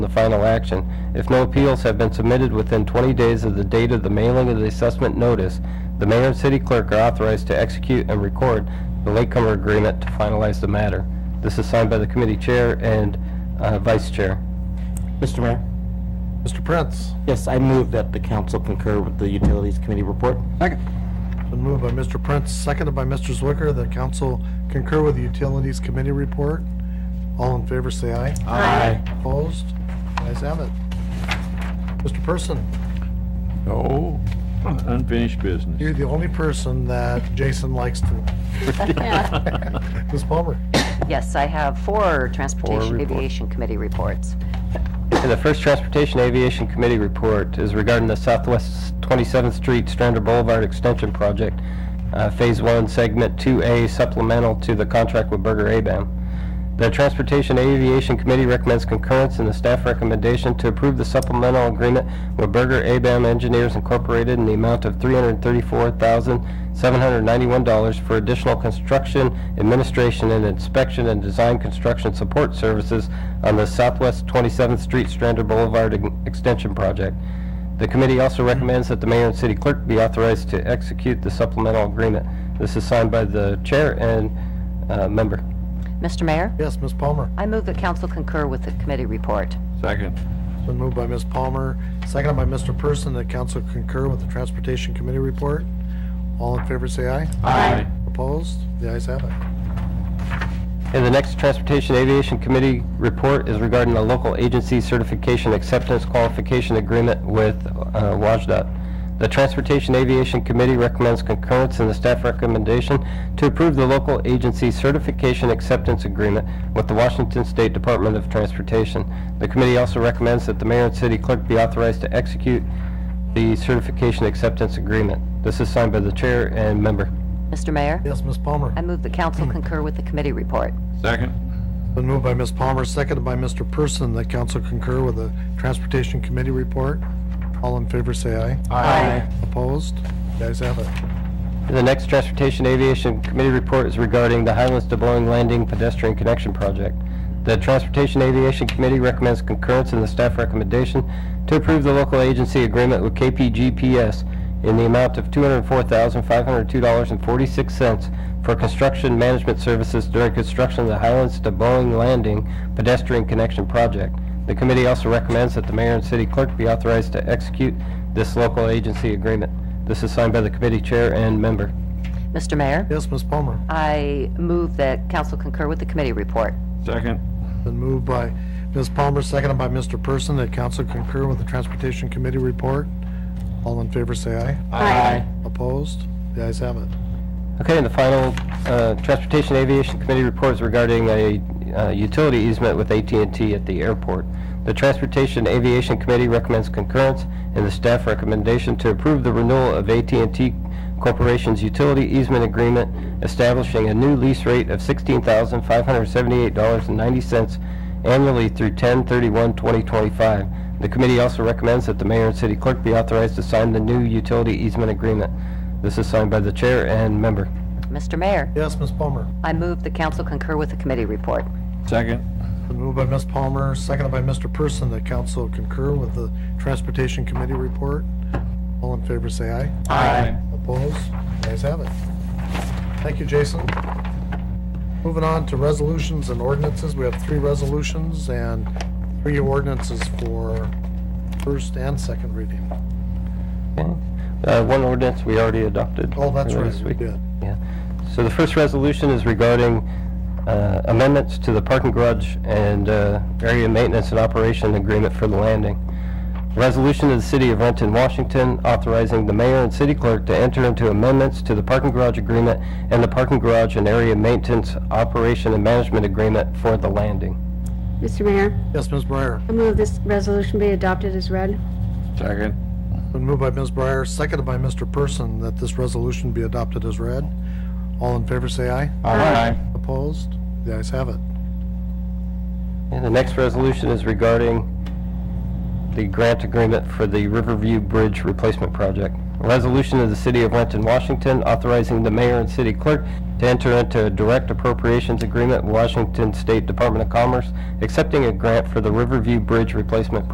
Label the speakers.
Speaker 1: the final action. If no appeals have been submitted within 20 days of the date of the mailing of the assessment notice, the mayor and city clerk are authorized to execute and record the latecomer agreement to finalize the matter. This is signed by the committee chair and uh, vice chair.
Speaker 2: Mr. Mayor?
Speaker 3: Mr. Prince.
Speaker 2: Yes, I move that the council concur with the Utilities Committee report.
Speaker 3: Been moved by Mr. Prince, seconded by Mr. Zwicker, that council concur with the Utilities Committee report. All in favor, say aye.
Speaker 2: Aye.
Speaker 3: Opposed? Ayes have it. Mr. Person,
Speaker 4: No, unfinished business.
Speaker 3: you're the only person that Jason likes to. Ms. Palmer?
Speaker 5: Yes, I have four
Speaker 1: Four
Speaker 5: Transportation
Speaker 1: reports.
Speaker 5: Aviation Committee reports.
Speaker 1: And the first Transportation Aviation Committee report is regarding the Southwest 27th Street Strander Boulevard Extension Project, uh, Phase 1, Segment 2A, supplemental to the contract with Berger ABAM. The Transportation Aviation Committee recommends concurrence in the staff recommendation to approve the supplemental agreement with Berger ABAM Engineers Incorporated in the amount of $334,791 for additional construction, administration, and inspection and design construction support services on the Southwest 27th Street Strander Boulevard Ex- Extension Project. The committee also recommends that the mayor and city clerk be authorized to execute the supplemental agreement. This is signed by the chair and uh, member.
Speaker 5: Mr. Mayor,
Speaker 3: Yes, Ms. Palmer.
Speaker 5: I move that council concur with the committee report.
Speaker 4: Second.
Speaker 3: Been moved by Ms. Palmer, seconded by Mr. Person, that council concur with the Transportation Committee report. All in favor, say aye.
Speaker 4: Aye.
Speaker 3: Opposed? The ayes have it.
Speaker 1: And the next Transportation Aviation Committee report is regarding the local agency certification acceptance qualification agreement with uh, WashDOT. The Transportation Aviation Committee recommends concurrence in the staff recommendation to approve the local agency certification acceptance agreement with the Washington State Department of Transportation. The committee also recommends that the mayor and city clerk be authorized to execute the certification acceptance agreement. This is signed by the chair and member.
Speaker 5: Mr. Mayor,
Speaker 3: Yes, Ms. Palmer.
Speaker 5: I move that council
Speaker 1: Mm.
Speaker 5: concur with the committee report.
Speaker 4: Second.
Speaker 3: Been moved by Ms. Palmer, seconded by Mr. Person, that council concur with the Transportation Committee report. All in favor, say aye.
Speaker 5: Aye.
Speaker 3: Opposed? The ayes have it.
Speaker 1: The next Transportation Aviation Committee report is regarding the Highlands to Blowing Landing Pedestrian Connection Project. The Transportation Aviation Committee recommends concurrence in the staff recommendation to approve the local agency agreement with KPGPS in the amount of $204,502.46 for construction management services during construction of the Highlands to Blowing Landing Pedestrian Connection Project. The committee also recommends that the mayor and city clerk be authorized to execute this local agency agreement. This is signed by the committee chair and member.
Speaker 5: Mr. Mayor,
Speaker 3: Yes, Ms. Palmer.
Speaker 5: I move that council concur with the committee report.
Speaker 4: Second.
Speaker 3: Been moved by Ms. Palmer, seconded by Mr. Person, that council concur with the Transportation Committee report. All in favor, say aye.
Speaker 2: Aye.
Speaker 3: Opposed? The ayes have it.
Speaker 1: Okay, and the final uh, Transportation Aviation Committee report is regarding a uh, utility easement with at and t at the airport. The Transportation Aviation Committee recommends concurrence in the staff recommendation to approve the renewal of at and t Corporation's utility easement agreement establishing a new lease rate of $16,578.90 annually through 10/31/2025. The committee also recommends that the mayor and city clerk be authorized to sign the new utility easement agreement. This is signed by the chair and member.
Speaker 5: Mr. Mayor,
Speaker 3: Yes, Ms. Palmer.
Speaker 5: I move that council concur with the committee report.
Speaker 4: Second.
Speaker 3: Been moved by Ms. Palmer, seconded by Mr. Person, that council concur with the Transportation Committee report. All in favor, say aye.
Speaker 4: Aye.
Speaker 3: Opposed? The ayes have it. Thank you, Jason. Moving on to resolutions and ordinances, we have three resolutions and three ordinances for first and second reading.
Speaker 1: Okay. Uh, One ordinance we already adopted.
Speaker 3: Oh, that's
Speaker 1: earlier
Speaker 3: right,
Speaker 1: this
Speaker 3: we
Speaker 1: week.
Speaker 3: did.
Speaker 1: Yeah. So the first resolution is regarding uh, amendments to the parking garage and uh, area maintenance and operation agreement for the landing. Resolution of the City of Renton, Washington, authorizing the mayor and city clerk to enter into amendments to the parking garage agreement and the parking garage and area maintenance operation and management agreement for the landing.
Speaker 6: Mr. Mayor,
Speaker 3: Yes, Ms. Breyer.
Speaker 6: I move this resolution be adopted as read.
Speaker 4: Second.
Speaker 3: Been moved by Ms. Breyer, seconded by Mr. Person, that this resolution be adopted as read. All in favor, say aye.
Speaker 4: Aye.
Speaker 3: Opposed? The ayes have it.
Speaker 1: And the next resolution is regarding the grant agreement for the Riverview Bridge Replacement Project. A resolution of the City of Renton, Washington, authorizing the mayor and city clerk to enter into a direct appropriations agreement with Washington State Department of Commerce, accepting a grant for the Riverview Bridge Replacement